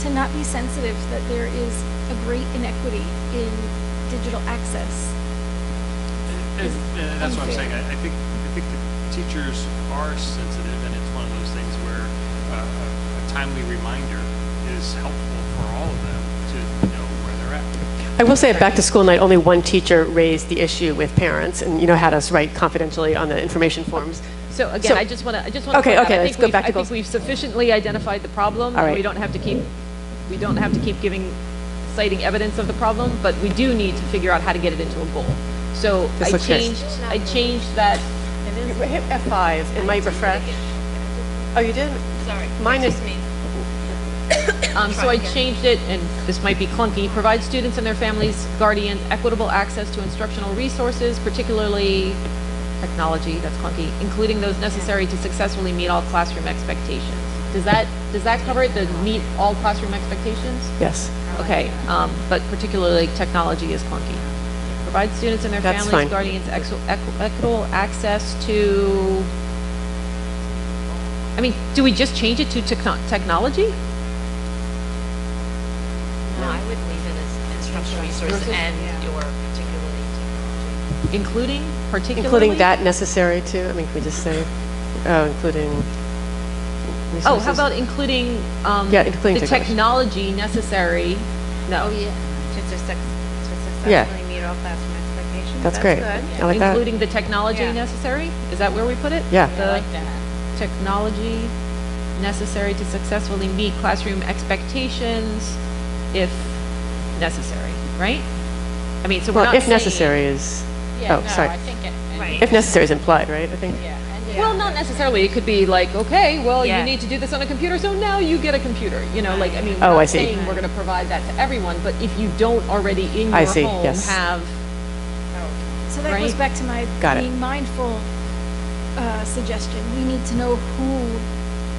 to not be sensitive that there is a great inequity in digital access. And, and uh, that's what I'm saying, I, I think, I think the teachers are sensitive, and it's one of those things where uh, a a timely reminder is helpful for all of them to know where they're at. I will say at back to school night, only one teacher raised the issue with parents and, you know, had us write confidentially on the information forms. So So- again, I just want to, I just want to. Okay, okay, let's go back to I think goals. we've sufficiently identified the problem. All right. We don't have to keep, we don't have to keep giving, citing evidence of the problem, but we do need to figure out how to get it into a goal. So This I looks good. changed, I changed that, You Hit F5 and might refresh. Oh, you did? Sorry. Mine is, um, so I changed it, and this might be clunky, provide students and their families, guardians, equitable access to instructional resources, particularly technology, that's clunky, including those necessary to successfully meet all classroom expectations. Does that, does that cover it, the meet all classroom expectations? yes. Okay, um, but particularly technology is clunky. Provide students and their That's fine. families, guardians, ex- equ- equitable access to, I mean, do we just change it to techno- technology? No, I would leave it as instructional resource and your particularly technology. Including, particularly? Including that necessary too? I mean, can we just say, oh, including Oh, how resources? about including, um, Yeah, including the technology necessary? No. To just, to Yeah. successfully meet all classroom expectations. That's great. good. I like that. Including the technology Yeah. necessary? Is that where we put it? Yeah. The Technology necessary to successfully meet classroom expectations if necessary, right? I mean, so we're Well, not if saying- necessary is, oh, sorry. Right. If necessary is implied, right? I think, Well, not necessarily. It could be like, okay, well, you Yeah. need to do this on a computer, so now you get a computer. You know, like, I mean, we're Oh, not I see. saying we're going to provide that to everyone, but if you don't already in I your see, home yes. have, So that goes Right. back to my Got it. being mindful uh, suggestion. We need to know who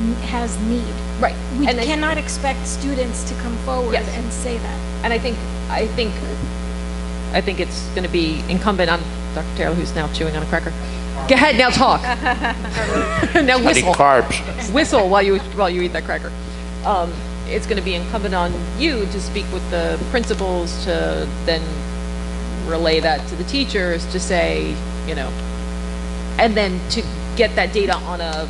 n- has need. right. We and I- cannot expect students to come forward Yes. and say that. And I think, I think, I think it's going to be incumbent on Dr. Taylor, who's now chewing on a cracker. Go ahead, now talk. now I need whistle. carbs. whistle while you while you eat that cracker. Um, it's going to be incumbent on you to speak with the principals to then relay that to the teachers to say, you know, and then to get that data on a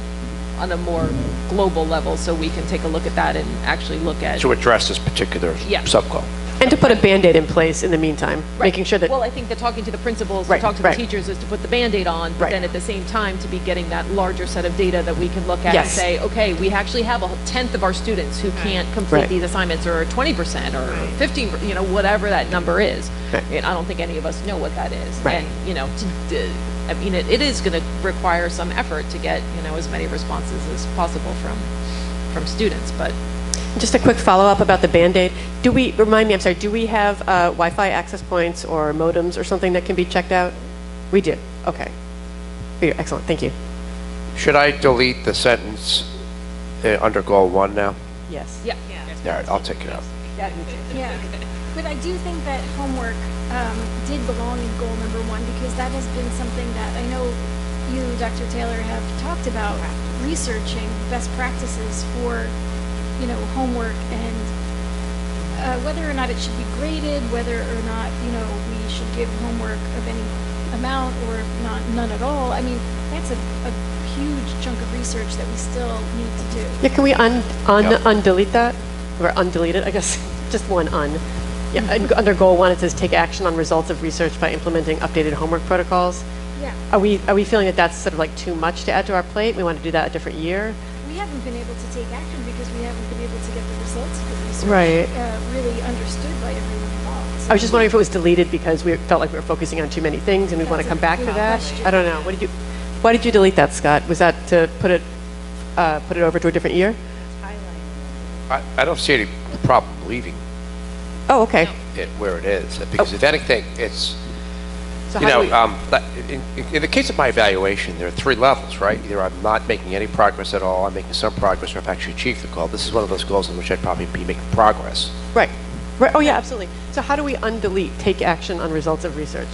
on a more global level so we can take a look at that and actually look at To address this particular Yeah. subclass. and to put a Band-Aid in place in the meantime, making sure that, Well, I think that talking to the principals, to Right, talk to the right. teachers is to put the Band-Aid on, Right. but then at the same time, to be getting that larger set of data that we can look at and Yes. say, okay, we actually have a tenth of our students who can't complete Right. these assignments, or twenty percent, or fifteen, you know, whatever that number is. Right. And I don't think any of us know what that is. Right. And, you know, to, d- I mean, it, it is gonna require some effort to get, you know, as many responses as possible from, from students, but just a quick follow-up about the Band-Aid. Do we, remind me, I'm sorry, do we have uh, Wi-Fi access points or modems or something that can be checked out? We do, okay. We do. Excellent, thank you. Should I delete the sentence uh, under goal one now? Yes. yeah. All right, I'll take it out. Yeah. But I do think that homework um, did belong in goal number one because that has been something that I know you, Dr. Taylor, have talked about researching best practices for, you know, homework and uh, whether or not it should be graded, whether or not, you know, we should give homework of any amount or not, none at all. I mean, that's a, a huge chunk of research that we still need to do. Yeah, can we un, un, Yeah. undelete that? Or undelete it, I guess, just one un. Yeah, and under goal one, it says, "Take action on results of research by implementing updated homework protocols." Yeah. Are we, are we feeling that that's sort of like too much to add to our plate? We want to do that a different year? We haven't been able to take action because we haven't been able to get the results of the research Right. uh, really understood by everyone involved. So I was just wondering if it was deleted because we felt like we were focusing on too many things and we want That's a to come back to good that? question. I don't know. What did you, why did you delete that, Scott? Was that to put it, uh, put it over to a different year? I, I don't see any problem leaving Oh, okay. it where it is, because if anything, it's, So you how do know, we- um, but in, in- in the case of my evaluation, there are three levels, right? Either I'm not making any progress at all, I'm making some progress, or I've actually achieved the goal. This is one of those goals in which I'd probably be making progress. Right. Right. Oh, yeah, absolutely. So how do we undelete, take action on results of research?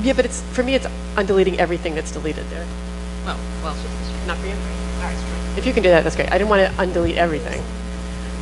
Yeah, but it's, for me, it's undeleting everything that's deleted there. Well, well, Not for you? If you can do that, that's great. I didn't want to undelete everything.